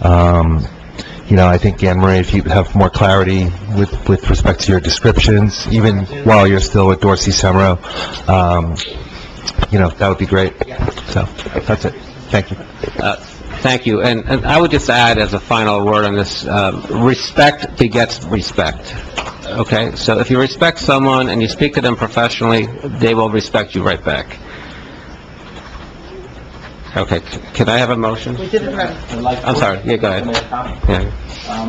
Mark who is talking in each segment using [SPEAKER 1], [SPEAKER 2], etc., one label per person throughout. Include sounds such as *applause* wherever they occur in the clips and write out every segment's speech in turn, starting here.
[SPEAKER 1] Um, you know, I think, Anne Marie, if you have more clarity with, with respect to your descriptions, even while you're still with Dorsey Semro, um, you know, that would be great. So, that's it. Thank you.
[SPEAKER 2] Uh, Thank you. And, and I would just add as a final word on this, um, respect begets respect. Okay? So if you respect someone and you speak to them professionally, they will respect you right back. Okay, c- can I have a motion?
[SPEAKER 3] We did it right.
[SPEAKER 2] I'm sorry, yeah, go ahead. Yeah.
[SPEAKER 4] Um,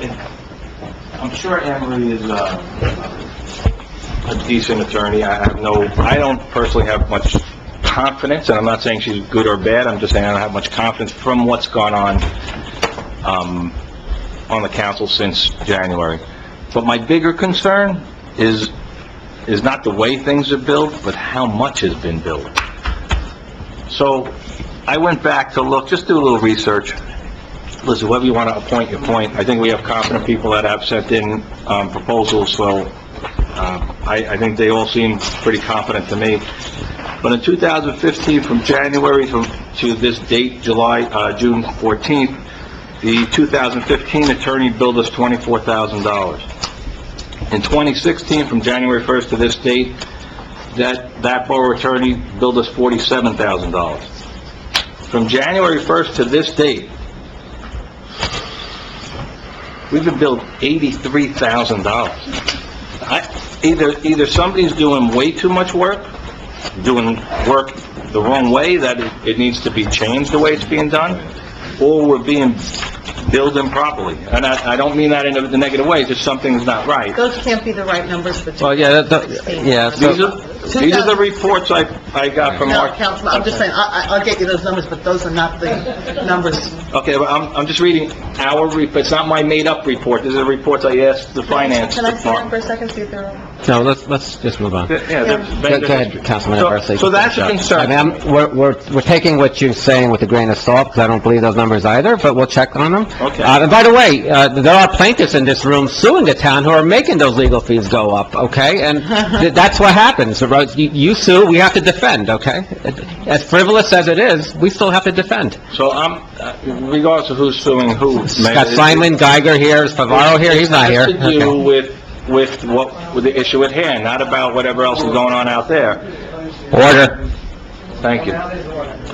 [SPEAKER 4] you know, it- I'm sure Anne Marie is uh, a decent attorney. I have no, I don't personally have much confidence, and I'm not saying she's good or bad, I'm just saying I don't have much confidence from what's gone on, um, on the council since January. But my bigger concern is, is not the way things are built, but how much has been built. So I went back to look, just do a little research. Listen, whoever you want to appoint, you appoint. I think we have competent people that have sent in um, proposals, so um, I I think they all seem pretty competent to me. But in 2015, from January to to this date, July, uh, June 14th, the 2015 attorney billed us $24,000. In 2016, from January 1st to this date, that that borough attorney billed us $47,000 from January 1st to this date, we've been billed $83,000. I- Either, either somebody's doing way too much work, doing work the wrong way, that it- it needs to be changed the way it's being done, or we're being billed improperly. And I, I don't mean that in a negative way, just something's not right.
[SPEAKER 3] Those can't be the right numbers for
[SPEAKER 2] Well,
[SPEAKER 3] 2016.
[SPEAKER 2] yeah, that- that, yeah, so-
[SPEAKER 4] These are, these are the reports I, I got from
[SPEAKER 3] No,
[SPEAKER 4] our
[SPEAKER 3] Councilman, I'm just saying, I, I- I'll get you those numbers, but those are not the numbers.
[SPEAKER 4] Okay, well, I'm, I'm just reading our, re- it's not my made-up report, these are reports I asked the finance
[SPEAKER 3] Can I sit down for
[SPEAKER 4] department.
[SPEAKER 3] a second, see if they're...
[SPEAKER 2] no, let's, let's just move on.
[SPEAKER 4] Yeah, they're-
[SPEAKER 2] Go go ahead, Councilman
[SPEAKER 4] So-
[SPEAKER 2] Versley.
[SPEAKER 4] So that's a
[SPEAKER 2] I mean,
[SPEAKER 4] concern.
[SPEAKER 2] I'm- we're, we're, we're taking what you're saying with a grain of salt, because I don't believe those numbers either, but we'll check on them.
[SPEAKER 4] Okay.
[SPEAKER 2] Uh, and by the way, uh, there are plaintiffs in this room suing the town who are making those legal fees go up, okay?
[SPEAKER 4] *laughs*
[SPEAKER 2] And th- that's what happens, right? You- you sue, we have to defend, okay? As frivolous as it is, we still have to defend.
[SPEAKER 4] So I'm, uh, regardless of who's suing who. Mayor,
[SPEAKER 2] Got
[SPEAKER 4] it-
[SPEAKER 2] Simon Geiger here, is Favaro here, he's not here.
[SPEAKER 4] It has to do
[SPEAKER 2] Okay.
[SPEAKER 4] with, with what, with the issue at hand, not about whatever else is going on out there.
[SPEAKER 2] Order,
[SPEAKER 4] Thank you.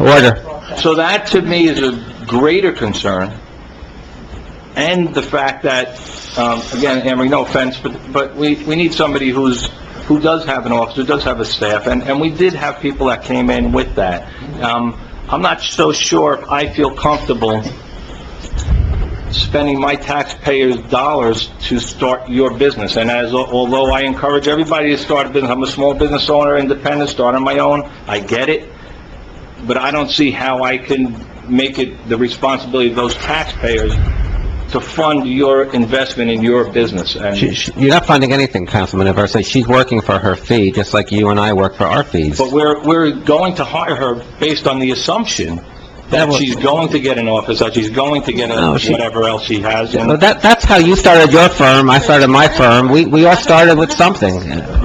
[SPEAKER 2] order.
[SPEAKER 4] So that, to me, is a greater concern, and the fact that, um, again, Emery, no offense, but, but we, we need somebody who's, who does have an office, who does have a staff, and, and we did have people that came in with that. Um, I'm not so sure if I feel comfortable spending my taxpayers' dollars to start your business. And as, although I encourage everybody to start a business, I'm a small business owner, independent, starting my own, I get it, but I don't see how I can make it the responsibility of those taxpayers to fund your investment in your business.
[SPEAKER 2] She-
[SPEAKER 4] And,
[SPEAKER 2] she- You're not funding anything, Councilman Aversa. She's working for her fee, just like you and I work for our fees.
[SPEAKER 4] but we're, we're going to hire her based on the assumption that she's going to get an office, that she's going to get a-
[SPEAKER 2] No, she-
[SPEAKER 4] whatever else she has. and-
[SPEAKER 2] Well, that, that's how you started your firm, I started my firm. We, we all started with something,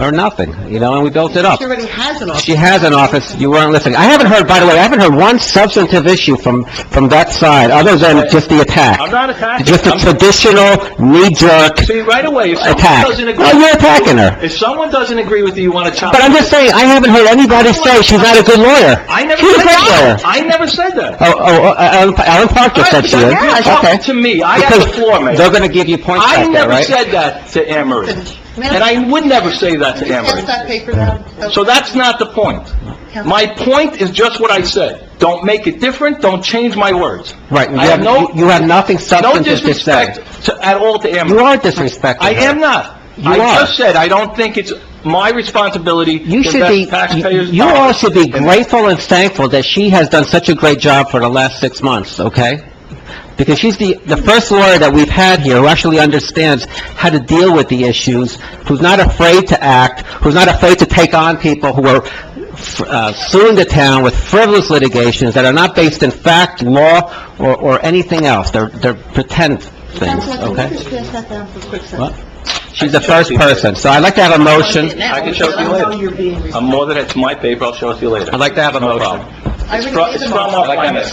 [SPEAKER 2] or nothing, you know, and we built it up.
[SPEAKER 3] She already has an office.
[SPEAKER 2] She has an office, you weren't listening. I haven't heard, by the way, I haven't heard one substantive issue from, from that side, other than just the
[SPEAKER 4] I'm
[SPEAKER 2] attack.
[SPEAKER 4] not attacking,
[SPEAKER 2] Just a
[SPEAKER 4] I'm,
[SPEAKER 2] traditional knee-jerk
[SPEAKER 4] see, right away, if someone
[SPEAKER 2] attack.
[SPEAKER 4] doesn't
[SPEAKER 2] Well,
[SPEAKER 4] agree,
[SPEAKER 2] you're attacking her.
[SPEAKER 4] if someone doesn't agree with you, you want to chop...
[SPEAKER 2] But I'm just saying, I haven't heard anybody say she's not a good lawyer.
[SPEAKER 4] I never
[SPEAKER 2] She's a
[SPEAKER 4] said
[SPEAKER 2] great lawyer.
[SPEAKER 4] that. I never said that.
[SPEAKER 2] Oh, oh, oh, Alan Alan Parker said she is.
[SPEAKER 4] You're
[SPEAKER 2] Okay.
[SPEAKER 4] talking to me, I have the floor,
[SPEAKER 2] Because
[SPEAKER 4] man.
[SPEAKER 2] They're going to give you points
[SPEAKER 4] I
[SPEAKER 2] back there,
[SPEAKER 4] never
[SPEAKER 2] right?
[SPEAKER 4] said that to Anne Marie, and I would never say that to Anne
[SPEAKER 3] Pass
[SPEAKER 4] Marie.
[SPEAKER 3] that paper down.
[SPEAKER 4] So that's not the point. My point is just what I said. Don't make it different, don't change my words.
[SPEAKER 2] Right, you
[SPEAKER 4] I have
[SPEAKER 2] have,
[SPEAKER 4] no-
[SPEAKER 2] you- you have nothing
[SPEAKER 4] No
[SPEAKER 2] substantive to say.
[SPEAKER 4] disrespect to- at all to Anne
[SPEAKER 2] You
[SPEAKER 4] Marie.
[SPEAKER 2] are disrespecting
[SPEAKER 4] I
[SPEAKER 2] her.
[SPEAKER 4] am not.
[SPEAKER 2] You
[SPEAKER 4] I
[SPEAKER 2] are.
[SPEAKER 4] just said, I don't think it's my responsibility to
[SPEAKER 2] You should be,
[SPEAKER 4] invest taxpayers'
[SPEAKER 2] you all
[SPEAKER 4] dollars.
[SPEAKER 2] should be grateful and thankful that she has done such a great job for the last six months, okay? Because she's the, the first lawyer that we've had here who actually understands how to deal with the issues, who's not afraid to act, who's not afraid to take on people who are uh, suing the town with frivolous litigations that are not based in fact, law, or, or anything else. They're, they're pretend things,
[SPEAKER 3] Councilman, can you
[SPEAKER 2] okay?
[SPEAKER 3] just pass that down for a quick second?
[SPEAKER 2] What? She's the first person, so I'd like to have a motion.
[SPEAKER 3] Now,
[SPEAKER 4] I can show it to
[SPEAKER 3] I
[SPEAKER 4] you
[SPEAKER 3] know
[SPEAKER 4] later. Oh.
[SPEAKER 3] you're being...
[SPEAKER 4] I'm more than, it's my paper, I'll show it to you later.
[SPEAKER 2] I'd like to have a
[SPEAKER 4] No
[SPEAKER 2] motion.
[SPEAKER 4] problem.
[SPEAKER 3] I
[SPEAKER 4] It's
[SPEAKER 3] already
[SPEAKER 4] from,
[SPEAKER 3] gave
[SPEAKER 4] it's
[SPEAKER 3] them
[SPEAKER 4] from
[SPEAKER 3] all.
[SPEAKER 4] our finance.